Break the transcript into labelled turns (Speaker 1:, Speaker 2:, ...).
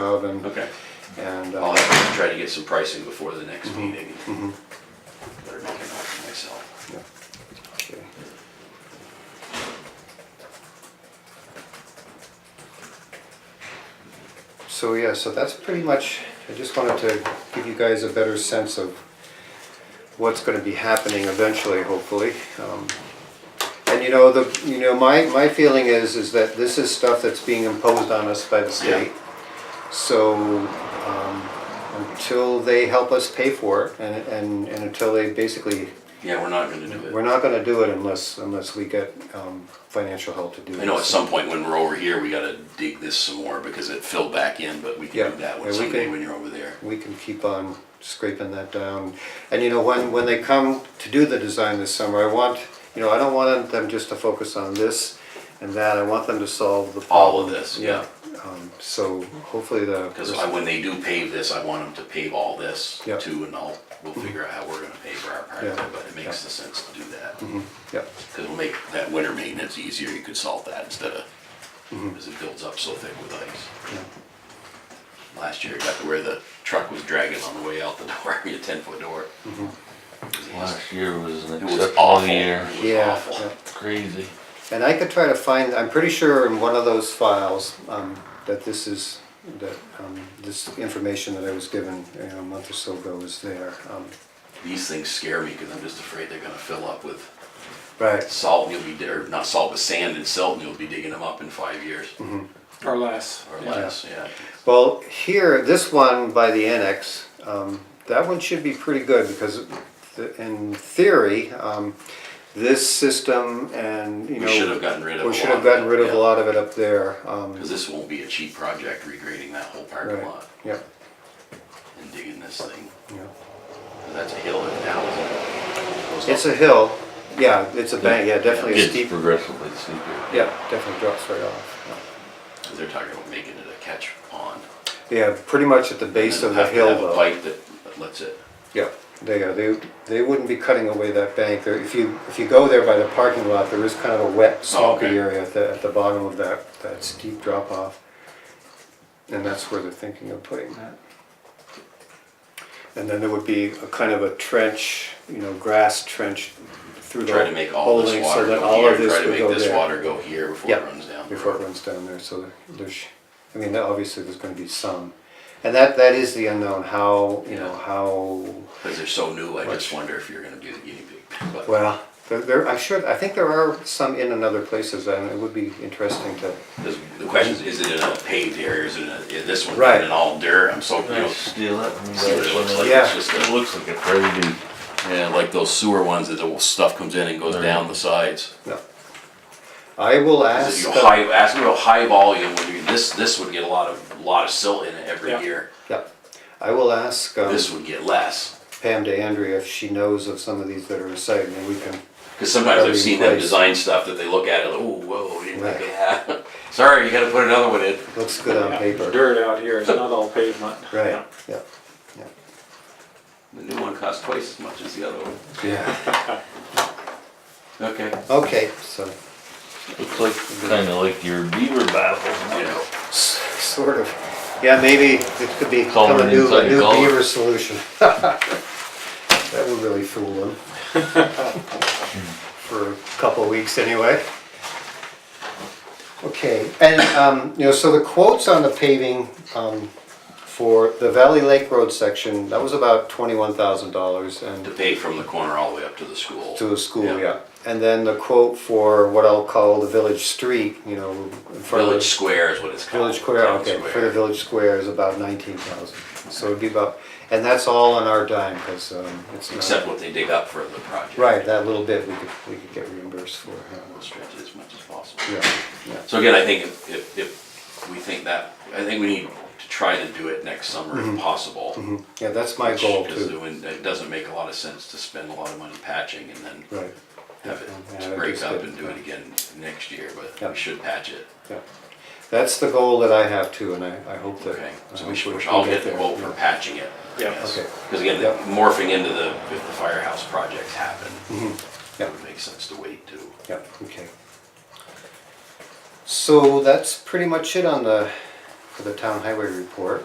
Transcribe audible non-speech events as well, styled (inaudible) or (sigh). Speaker 1: of and,
Speaker 2: Okay.
Speaker 1: and,
Speaker 2: I'll
Speaker 1: uh,
Speaker 2: have to try to get some pricing before the next meeting.
Speaker 1: mhm,
Speaker 2: Better make it up for myself.
Speaker 1: yeah. Okay. So, yeah, so that's pretty much, I just wanted to give you guys a better sense of what's gonna be happening eventually, hopefully. Um, And you know, the, you know, my, my feeling is, is that this is stuff that's being imposed on us by the state. So, um, until they help us pay for it and, and, and until they basically,
Speaker 2: Yeah, we're not gonna do
Speaker 1: we're
Speaker 2: it.
Speaker 1: not gonna do it unless, unless we get, um, financial help to do it.
Speaker 2: I know at some point when we're over here, we gotta dig this some more because it filled back in, but we
Speaker 1: Yeah,
Speaker 2: can do that one
Speaker 1: and we
Speaker 2: someday
Speaker 1: can-
Speaker 2: when you're over there.
Speaker 1: we can keep on scraping that down. And you know, when, when they come to do the design this summer, I want, you know, I don't want them just to focus on this and that, I want them to solve the problem.
Speaker 2: All of this, yeah.
Speaker 1: Um, So hopefully the.
Speaker 2: Because when they do pave this, I want them to pave all this
Speaker 1: Yeah. Mm-hmm.
Speaker 2: too, and I'll, we'll figure out how we're gonna pave our part of
Speaker 1: Yeah, Mm-hmm.
Speaker 2: it, but it makes the sense to do that.
Speaker 1: Yeah,
Speaker 2: Because it'll make that winter maintenance easier, you could salt that instead of,
Speaker 1: Mm-hmm.
Speaker 2: because it builds up so thick with ice.
Speaker 1: yeah,
Speaker 2: Last year, it got to where the truck was dragging on the way out the (laughs) door, a ten foot door. 'Cause it was-
Speaker 3: Last year was an
Speaker 2: It was
Speaker 3: exceptional
Speaker 2: awful.
Speaker 3: year.
Speaker 2: It was
Speaker 1: yeah.
Speaker 2: awful.
Speaker 1: yeah.
Speaker 3: Crazy.
Speaker 1: And I could try to find, I'm pretty sure in one of those files, um, that this is, that, um, this information that I was given, you know, a month or so ago is there. Um,
Speaker 2: These things scare me because I'm just afraid they're gonna fill up with
Speaker 1: Right,
Speaker 2: salt and you'll be, or not salt, but sand and silt and you'll be digging them up in five years
Speaker 1: Mm-hmm.
Speaker 4: Or less.
Speaker 2: or
Speaker 4: yeah.
Speaker 2: less, yeah.
Speaker 1: Well, here, this one by the annex, um, that one should be pretty good because th- in theory, um, this system and, you know.
Speaker 2: We should have gotten rid of
Speaker 1: We
Speaker 2: a
Speaker 1: should
Speaker 2: lot
Speaker 1: have gotten rid of
Speaker 2: yeah.
Speaker 1: a lot of it up there. um,
Speaker 2: Because this won't be a cheap project, regrading that whole parking
Speaker 1: Right,
Speaker 2: lot
Speaker 1: yeah,
Speaker 2: and digging this thing.
Speaker 1: yeah.
Speaker 2: 'Cause That's a hill and down. isn't it?
Speaker 1: It's a hill, yeah, it's a bank, yeah, definitely a
Speaker 3: Gets
Speaker 1: steep,
Speaker 3: progressively steeper.
Speaker 1: yeah, definitely drops right off.
Speaker 2: 'Cause They're talking about making it a catch pond.
Speaker 1: Yeah, pretty much at the base of the hill
Speaker 2: Have to have a
Speaker 1: though.
Speaker 2: pipe that that lets it,
Speaker 1: Yeah, they are, they, they wouldn't be cutting away that bank. There- If you, if you go there by the parking lot, there is kind of a wet, swampy
Speaker 2: Oh, okay.
Speaker 1: area at the, at the bottom of that, that steep drop off. And that's where they're thinking of putting that. And then there would be a kind of a trench, you know, grass trench through the
Speaker 2: try to make all
Speaker 1: holding
Speaker 2: this
Speaker 1: so
Speaker 2: water
Speaker 1: that
Speaker 2: go
Speaker 1: all of
Speaker 2: here,
Speaker 1: this
Speaker 2: try to
Speaker 1: would
Speaker 2: make
Speaker 1: go
Speaker 2: this
Speaker 1: there.
Speaker 2: water go here before it
Speaker 1: Yeah,
Speaker 2: runs down. the
Speaker 1: Before it
Speaker 2: road.
Speaker 1: runs down there, so there- there's, I mean, that- obviously there's gonna be some. And that, that is the unknown, how, you know,
Speaker 2: Yeah.
Speaker 1: how
Speaker 2: Because they're so new, I
Speaker 1: Much.
Speaker 2: just wonder if you're gonna be the guinea pig. But
Speaker 1: Well, there, there, I'm sure, I think there are some in and other places, and it would be interesting to.
Speaker 2: this- the question is, is it in a paved area, or is it in a, is this one
Speaker 1: Right.
Speaker 2: in all dirt? I'm so, you
Speaker 3: They
Speaker 2: know,
Speaker 3: steal it. from
Speaker 2: see what it looks
Speaker 3: the-
Speaker 2: like.
Speaker 1: Yeah.
Speaker 2: It's just
Speaker 3: It
Speaker 2: a-
Speaker 3: looks like a crazy,
Speaker 2: Yeah, like those sewer ones that the stuff comes in and goes down the sides.
Speaker 1: No. I will
Speaker 2: Is
Speaker 1: ask. uh,
Speaker 2: it, you know,
Speaker 1: the-
Speaker 2: high, as you know, high volume, when you, this, this would get a lot of, lot of silt in it every
Speaker 4: Yeah.
Speaker 2: year.
Speaker 1: Yeah, I will ask um,
Speaker 2: This would get less.
Speaker 1: Pam DeAndrea if she knows of some of these that are aside, and we can,
Speaker 2: Because sometimes I've seen them
Speaker 1: Replace.
Speaker 2: design stuff that they look at and like, oh, whoa, we didn't think of
Speaker 1: Right.
Speaker 2: that. (laughs) Sorry, you gotta put another one in.
Speaker 1: looks good on
Speaker 4: Yeah, there's
Speaker 1: paper.
Speaker 4: Dirt out here, it's not all pavement.
Speaker 1: Right, yeah, yeah.
Speaker 2: The new one costs twice as much as the other one.
Speaker 1: Yeah.
Speaker 2: Okay.
Speaker 1: Okay, so,
Speaker 3: looks like, kinda like your beaver baffle.
Speaker 2: You know,
Speaker 1: s- sort of, yeah, maybe it could be
Speaker 3: Call
Speaker 1: become a
Speaker 3: it
Speaker 1: new,
Speaker 3: inside
Speaker 1: a
Speaker 3: the
Speaker 1: new
Speaker 3: gullet.
Speaker 1: beaver solution. (laughs) That would really fool them. (laughs) For a couple of weeks anyway. Okay, and, um, you know, so the quotes on the paving, um, for the Valley Lake Road section, that was about twenty-one thousand dollars and
Speaker 2: to pay from the corner all the way up to the school.
Speaker 1: to a school,
Speaker 2: Yeah.
Speaker 1: yeah. And then the quote for what I'll call the village street, you know, in front of.
Speaker 2: Village Square is what it's called.
Speaker 1: Village Square,
Speaker 2: Town
Speaker 1: okay, for
Speaker 2: Oh, Square.
Speaker 1: the Village Square is about nineteen thousand, so it'd be about, and that's all on our dime, because, um, it's
Speaker 2: Except
Speaker 1: not.
Speaker 2: what they dig up for the project.
Speaker 1: Right, that little bit we could, we could get reimbursed for,
Speaker 2: We'll
Speaker 1: yeah.
Speaker 2: stretch it as much as possible.
Speaker 1: yeah, yeah,
Speaker 2: So again, I think if, if, if we think that, I think we need to try to do it next summer if possible.
Speaker 1: mhm. yeah, that's my goal
Speaker 2: Because it
Speaker 1: too,
Speaker 2: wouldn't- it doesn't make a lot of sense to spend a lot of money patching and then
Speaker 1: right,
Speaker 2: have
Speaker 1: Yeah,
Speaker 2: it
Speaker 1: that'd
Speaker 2: to
Speaker 1: be
Speaker 2: break up
Speaker 1: good.
Speaker 2: and do it again next year, but
Speaker 1: Yeah.
Speaker 2: we should patch it.
Speaker 1: yeah. That's the goal that I have too, and I, I hope that.
Speaker 2: Okay,
Speaker 1: I
Speaker 2: so
Speaker 1: hope
Speaker 2: we should,
Speaker 1: can
Speaker 2: I'll get the
Speaker 1: there,
Speaker 2: quote for
Speaker 1: yeah.
Speaker 2: patching it.
Speaker 4: Yeah.
Speaker 1: Okay.
Speaker 2: Because again,
Speaker 1: Yeah.
Speaker 2: morphing into the, if the firehouse projects happen,
Speaker 1: Mm-hmm. Yeah.
Speaker 2: it would make sense to wait too.
Speaker 1: Yeah, okay. So that's pretty much it on the, the for the town highway report.